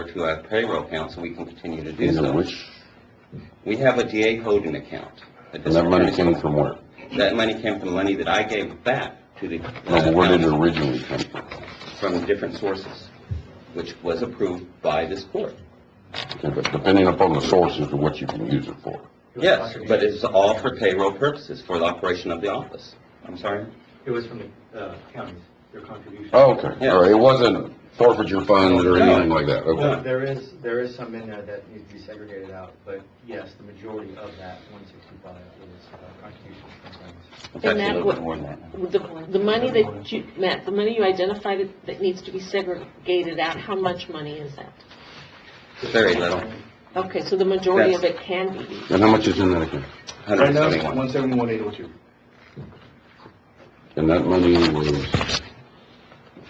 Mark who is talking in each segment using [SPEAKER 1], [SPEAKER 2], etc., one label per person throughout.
[SPEAKER 1] to our payroll accounts, and we can continue to do
[SPEAKER 2] These are
[SPEAKER 1] so.
[SPEAKER 2] which,
[SPEAKER 1] We have a DA holding account. a
[SPEAKER 2] and that money
[SPEAKER 1] district
[SPEAKER 2] came
[SPEAKER 1] attorney's-
[SPEAKER 2] from where?
[SPEAKER 1] That money came from money that I gave back to the. uh,
[SPEAKER 2] No, but where did it
[SPEAKER 1] county
[SPEAKER 2] originally come from?
[SPEAKER 1] From different sources, which was approved by this court.
[SPEAKER 2] Okay, but depending upon the sources of what you can use it for.
[SPEAKER 1] Yes, but it's all for payroll purposes, for the operation of the office. I'm sorry?
[SPEAKER 3] It was from the uh, counties, their contribution.
[SPEAKER 2] Oh, Okay, all right, it wasn't forfeiture funds or anything like that,
[SPEAKER 3] No,
[SPEAKER 2] okay.
[SPEAKER 3] there is, there is some in there that needs to be segregated out, but yes, the majority of that one sixty-five is uh, contribution from counties.
[SPEAKER 1] It's
[SPEAKER 4] And
[SPEAKER 1] actually a
[SPEAKER 4] that
[SPEAKER 1] little
[SPEAKER 4] wa-
[SPEAKER 1] bit more than that.
[SPEAKER 4] The, the money that you, Matt, the money you identified that- that needs to be segregated out, how much money is that?
[SPEAKER 1] Very little.
[SPEAKER 4] Okay, so the majority of it can be used.
[SPEAKER 2] And how much is in that account?
[SPEAKER 5] Right now,
[SPEAKER 1] 171.
[SPEAKER 5] one seventy-one, eight oh two.
[SPEAKER 2] And that money was,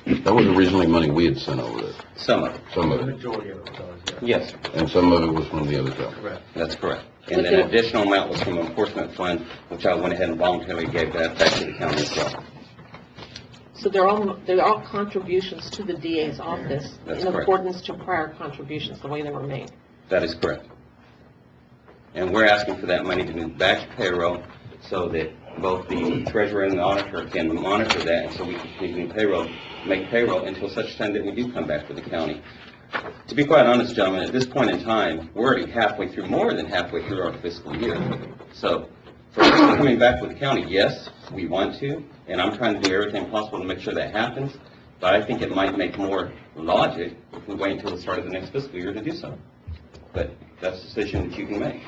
[SPEAKER 2] that was originally money we had sent over there,
[SPEAKER 1] Some of it.
[SPEAKER 2] some
[SPEAKER 3] The
[SPEAKER 2] of it.
[SPEAKER 3] majority of it does, yeah.
[SPEAKER 1] Yes, sir.
[SPEAKER 2] And some of it was from the other company.
[SPEAKER 3] Correct.
[SPEAKER 1] That's correct. And an additional amount was from enforcement fund, which I went ahead and voluntarily gave that back to the county as well.
[SPEAKER 4] So they're all, they're all contributions to the DA's office
[SPEAKER 1] That's
[SPEAKER 4] in
[SPEAKER 1] correct.
[SPEAKER 4] accordance to prior contributions, the way they were made.
[SPEAKER 1] That is correct. And we're asking for that money to be back to payroll so that both the treasurer and the auditor can monitor that, and so we can continue to payroll, make payroll until such time that we do come back to the county. To be quite honest, gentlemen, at this point in time, we're already halfway through, more than halfway through our fiscal year. So for us to coming back with the county, yes, we want to, and I'm trying to do everything possible to make sure that happens, but I think it might make more logic if we wait until the start of the next fiscal year to do so. But that's a decision that you can make.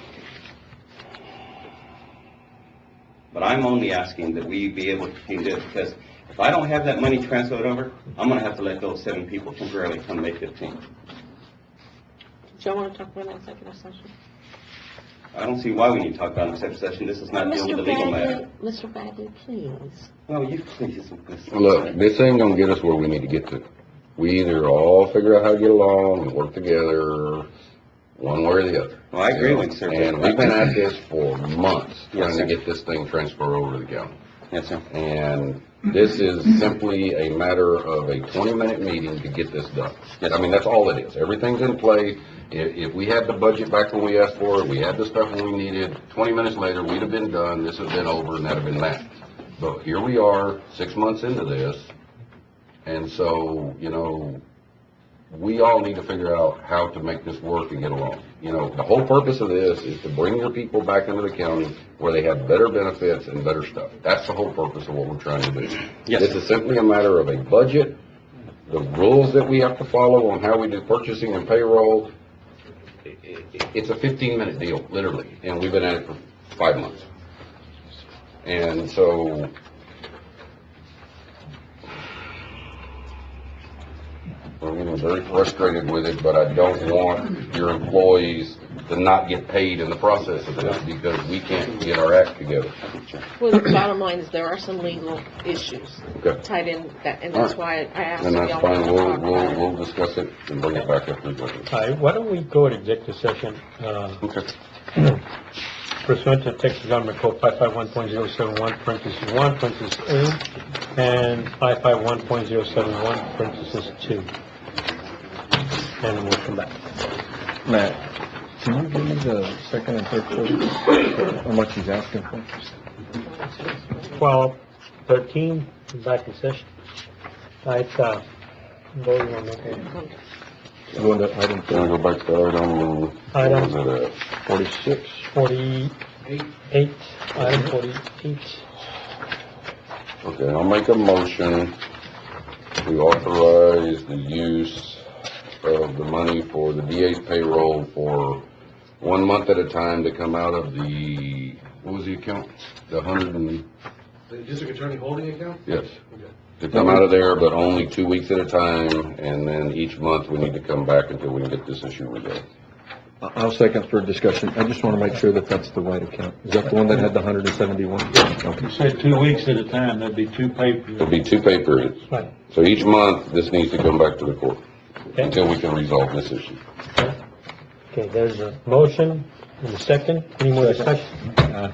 [SPEAKER 1] But I'm only asking that we be able to continue this, because if I don't have that money transferred over, I'm gonna have to let go of seven people temporarily come May fifteenth.
[SPEAKER 4] Do y'all want to talk about that executive session?
[SPEAKER 1] I don't see why we need to talk about an executive session, this is not dealing Uh, with a
[SPEAKER 4] Mr.
[SPEAKER 1] legal matter.
[SPEAKER 4] Bagley, Mr. Bagley, please.
[SPEAKER 1] No, you please, Ms.
[SPEAKER 2] Look, this ain't gonna get us where we need to get to. We either all figure out how to get along and work together, one way or the other.
[SPEAKER 1] Well, I agree with you, sir.
[SPEAKER 2] And we've been at this for months,
[SPEAKER 1] Yes,
[SPEAKER 2] trying
[SPEAKER 1] sir.
[SPEAKER 2] to get this thing transferred over to the county.
[SPEAKER 1] Yes, sir.
[SPEAKER 2] And this is simply a matter of a twenty-minute meeting to get this done.
[SPEAKER 1] Yes.
[SPEAKER 2] I mean, that's all it is. Everything's in place. If, if we had the budget back when we asked for it, we had the stuff when we needed, twenty minutes later, we'd have been done, this had been over, and that'd have been that. But here we are, six months into this, and so, you know, we all need to figure out how to make this work and get along. You know, the whole purpose of this is to bring your people back into the county where they have better benefits and better stuff. That's the whole purpose of what we're trying to do.
[SPEAKER 1] Yes.
[SPEAKER 2] This is simply a matter of a budget, the rules that we have to follow on how we do purchasing and payroll. I- i- It's a fifteen-minute deal, literally, and we've been at it for five months. And so, I'm getting very frustrated with it, but I don't want your employees to not get paid in the process of this because we can't get our act together.
[SPEAKER 4] Well, the bottom line is there are some legal issues
[SPEAKER 2] Okay.
[SPEAKER 4] tied in that, and that's why I asked if
[SPEAKER 2] And
[SPEAKER 4] y'all
[SPEAKER 2] that's
[SPEAKER 4] wanted
[SPEAKER 2] fine,
[SPEAKER 4] to
[SPEAKER 2] we'll,
[SPEAKER 4] talk about
[SPEAKER 2] we'll,
[SPEAKER 4] it.
[SPEAKER 2] we'll discuss it and bring it back up to the.
[SPEAKER 6] All right, why don't we go to executive session uh,
[SPEAKER 2] Okay.
[SPEAKER 6] pursuant to Texas Government Code 551.071, parentheses 1, parentheses 2, and 551.071, parentheses 2. And we'll come back.
[SPEAKER 7] Matt, can you give me the second and third quarter, how much he's asking for?
[SPEAKER 6] 12, 13, back in session. All right, uh, voting on that.
[SPEAKER 7] Going to item
[SPEAKER 2] Can I go back to item, uh, what
[SPEAKER 6] Item.
[SPEAKER 2] was it, uh,
[SPEAKER 7] forty-six?
[SPEAKER 6] 48, item 48.
[SPEAKER 2] Okay, I'll make a motion to authorize the use of the money for the DA's payroll for one month at a time to come out of the, what was the account? The hundred and,
[SPEAKER 5] The district attorney holding account?
[SPEAKER 2] yes. To come out of there, but only two weeks at a time, and then each month we need to come back until we can get this issue resolved.
[SPEAKER 7] I'll second for discussion, I just want to make sure that that's the right account. Is that the one that had the hundred and seventy-one? Okay.
[SPEAKER 8] Say two weeks at a time, that'd be two papers.
[SPEAKER 2] It'll be two pay periods,
[SPEAKER 6] Right.
[SPEAKER 2] so each month this needs to come back to the court
[SPEAKER 6] Okay.
[SPEAKER 2] until we can resolve this issue.
[SPEAKER 6] Okay, there's a motion and a second. Any more discussion?
[SPEAKER 8] Uh,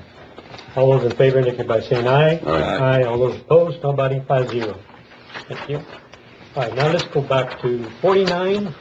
[SPEAKER 6] All those in favor indicate by saying aye.
[SPEAKER 2] Aye.
[SPEAKER 6] Aye, all those opposed, nobody, five zero. Thank you. All right, now let's go back to forty-nine